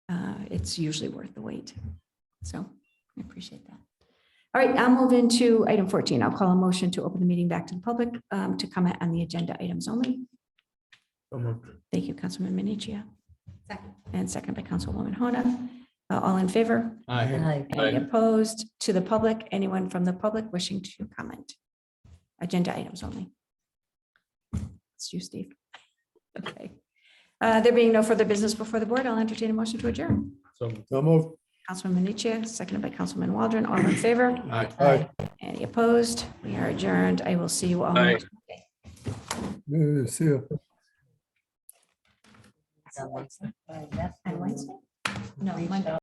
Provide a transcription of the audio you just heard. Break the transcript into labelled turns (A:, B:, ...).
A: uh, it's usually worth the wait. So I appreciate that. All right, I'll move into item 14. I'll call a motion to open the meeting back to the public um, to comment on the agenda items only.
B: So moved.
A: Thank you, Councilman Minichia. And second by Councilwoman Hona. Uh, All in favor?
B: Aye.
C: Aye.
A: Any opposed to the public? Anyone from the public wishing to comment? Agenda items only. It's you, Steve. Okay. Uh, There being no further business before the board, I'll entertain a motion to adjourn.
B: So moved.
C: So moved.
A: Councilman Minichia, seconded by Councilman Waldron, all in favor?
B: Aye.
C: Aye.
A: Any opposed? We are adjourned. I will see you all.
B: Aye.
C: Yeah, See ya.
A: On Wednesday? No, Monday.